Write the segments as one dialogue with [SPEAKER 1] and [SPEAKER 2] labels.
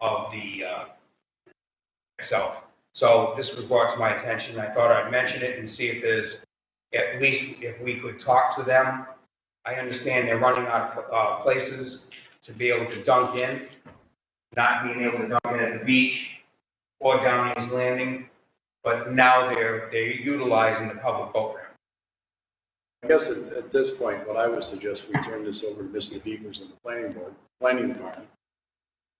[SPEAKER 1] of the, uh, itself. So this was brought to my attention, I thought I'd mention it and see if there's, at least if we could talk to them. I understand they're running out of, uh, places to be able to dunk in, not being able to dunk in at the beach or Downey's Landing, but now they're, they're utilizing the public boat ramp.
[SPEAKER 2] I guess at, at this point, what I would suggest, we turn this over to Mr. Beavers and the planning board, planning department.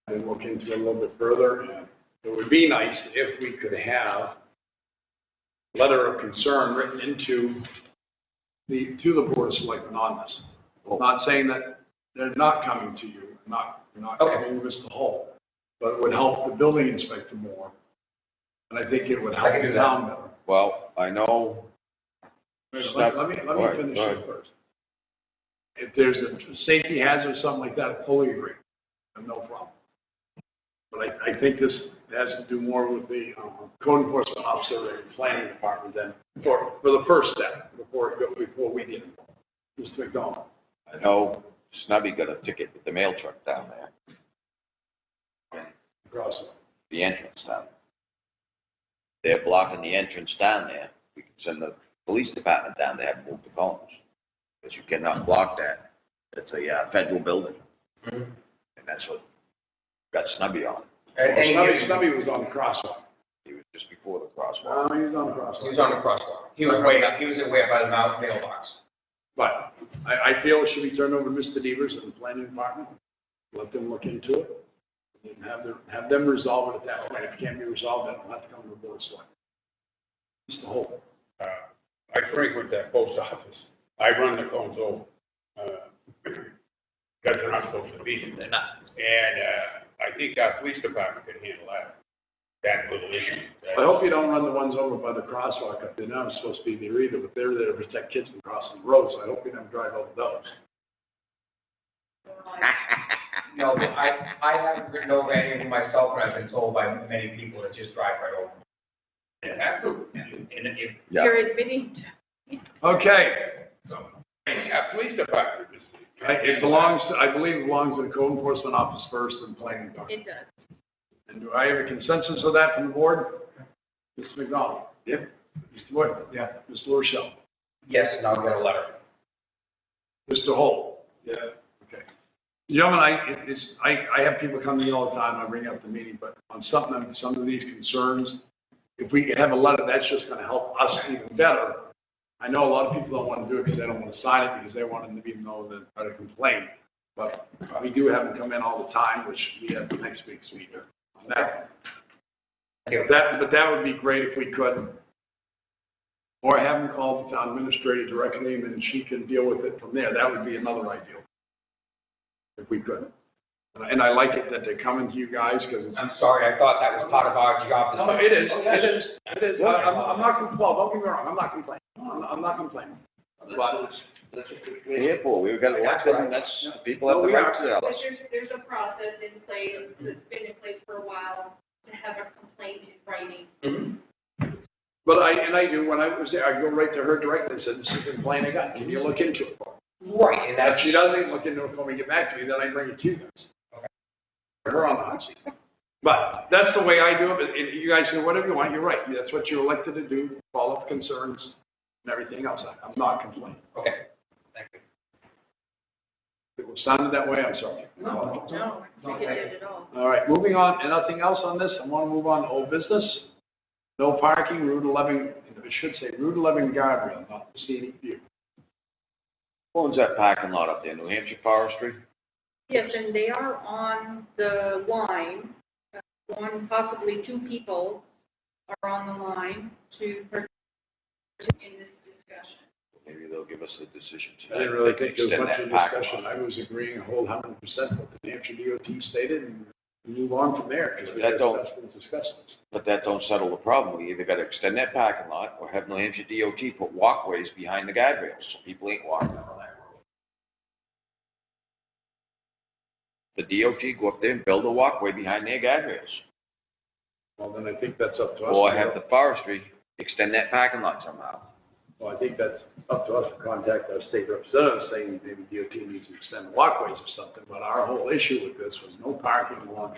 [SPEAKER 2] And look into it a little bit further, and it would be nice if we could have a letter of concern written into the, to the board of selectmen on this. Not saying that they're not coming to you, not, they're not
[SPEAKER 1] Okay.
[SPEAKER 2] coming to Mr. Hall, but it would help the building inspector more. And I think it would help
[SPEAKER 1] I can do
[SPEAKER 2] the
[SPEAKER 1] that.
[SPEAKER 2] town better.
[SPEAKER 3] Well, I know,
[SPEAKER 2] Wait, Let let me, let
[SPEAKER 3] All right,
[SPEAKER 2] me finish
[SPEAKER 3] all right.
[SPEAKER 2] it first. If there's a safety hazard, something like that, fully agree, I have no problem. But I, I think this has to do more with the uh, code enforcement officer and planning department than, for, for the first step, before, it go- before we get involved. Mr. McDonald,
[SPEAKER 3] I know Snubby got a ticket with the mail truck down there,
[SPEAKER 2] across,
[SPEAKER 3] the entrance down. there. They're blocking the entrance down there. We can send the police department down there and move the cones. Because you cannot block that. It's a uh, federal building,
[SPEAKER 1] Mm-hmm.
[SPEAKER 3] and that's what got Snubby on.
[SPEAKER 1] And, and
[SPEAKER 2] Snubby,
[SPEAKER 1] he was,
[SPEAKER 2] Snubby was on the crosswalk.
[SPEAKER 3] He was just before the crosswalk.
[SPEAKER 2] Uh, he was
[SPEAKER 1] he
[SPEAKER 2] on the crosswalk.
[SPEAKER 1] was on the crosswalk, he was way up, he was way up by the mouth mailbox.
[SPEAKER 2] But I, I feel it should be turned over to Mr. Devers and the planning department. Let them look into it. And have them, have them resolve it at that point. If it can't be resolved, then it'll have to come to the board of selectmen. Mr. Holt,
[SPEAKER 4] uh, I frequent that post office. I run the cones over. uh, Because they're not supposed to be there. And uh, I think our police department could handle that, that little issue.
[SPEAKER 2] I hope you don't run the ones over by the crosswalk up there. They're not supposed to be there either, but they're there to protect kids from crossing the road, so I hope you never drive over those.
[SPEAKER 1] No, I, I haven't written over anything myself, but I've been told by many people to just drive right over.
[SPEAKER 4] And that's the- and if,
[SPEAKER 3] Yeah,
[SPEAKER 5] admitting.
[SPEAKER 2] Okay,
[SPEAKER 4] and our police department is.
[SPEAKER 2] I- it belongs, to- I believe it belongs to the code enforcement office first and planning department.
[SPEAKER 5] It does.
[SPEAKER 2] And do I have a consensus of that from the board? Mr. McDonald? Yep. Mr. Boyd? Yeah. Mr. Rochelle?
[SPEAKER 1] Yes, and I'll get a letter.
[SPEAKER 2] Mr. Holt? Yeah. Okay. Gentlemen, I, it- it's, I, I have people come to me all the time, I bring up the meeting, but on something, of- some of these concerns, if we have a letter, that's just gonna help us even better. I know a lot of people don't wanna do it because they don't wanna sign it, because they want them to even know that, try to complain. But we do have them come in all the time, which we have next week's meeting on that. That, but that would be great if we could. Or have them call the town administrator directly and then she can deal with it from there. That would be another ideal. If we could. And I- And I like it that they're coming to you guys because it's.
[SPEAKER 1] I'm sorry, I thought that was part of our job.
[SPEAKER 2] No, it is, Oh, it is.
[SPEAKER 4] It is.
[SPEAKER 2] I- I'm, I'm not, compl- well, don't get me wrong, I'm not complaining. I'm, I'm not complaining. But
[SPEAKER 3] we're here for, we've got elected, and that's, people
[SPEAKER 2] No,
[SPEAKER 3] have
[SPEAKER 2] we
[SPEAKER 3] the right to tell
[SPEAKER 5] But
[SPEAKER 3] us.
[SPEAKER 5] there's, there's a process in place, that's been in place for a while, to have a complaint in writing.
[SPEAKER 2] But I, and I do, when I was there, I'd go right to her directly and said, this is complaining again, can you look into it? for me?"
[SPEAKER 1] Right, and
[SPEAKER 2] And if
[SPEAKER 1] that's,
[SPEAKER 2] she doesn't look into it when we get back to me, then I bring it to you guys. Put Her on the hot seat. But that's the way I do it, but if you guys do whatever you want, you're right, that's what you're elected to do, follow up concerns and everything else, I- I'm not complaining.
[SPEAKER 1] okay. Thank you.
[SPEAKER 2] If it sounded that way, I'm sorry.
[SPEAKER 5] No, I think it did at all.
[SPEAKER 2] All right, moving on, and nothing else on this, I want to move on to old business. No parking, Route 11, it should say Route 11 guardrail, not the scenic view.
[SPEAKER 3] Who owns that parking lot up there, New Hampshire Forestry?
[SPEAKER 5] Yes, and they are on the line, Uh, one, possibly two people are on the line to participate in this discussion.
[SPEAKER 3] Maybe they'll give us the decision tonight.
[SPEAKER 2] I didn't really think
[SPEAKER 3] They can
[SPEAKER 2] there was much of
[SPEAKER 3] extend that parking
[SPEAKER 2] discussion.
[SPEAKER 3] lot.
[SPEAKER 2] I was agreeing a whole hundred percent with what the New Hampshire DOT stated and move on from there because we just
[SPEAKER 3] That don't-
[SPEAKER 2] discussed and discussed this.
[SPEAKER 3] But that don't settle the problem. We either gotta extend that parking lot or have New Hampshire DOT put walkways behind the guide rails so people ain't walking on that road. The DOT go up there and build a walkway behind their guide rails.
[SPEAKER 2] Well, then I think that's up to us.
[SPEAKER 3] Or
[SPEAKER 2] to
[SPEAKER 3] have
[SPEAKER 2] go-
[SPEAKER 3] the forestry extend that parking lot somehow.
[SPEAKER 2] Well, I think that's up to us to contact our state representatives saying maybe DOT needs to extend the walkways or something. But our whole issue with this was no parking along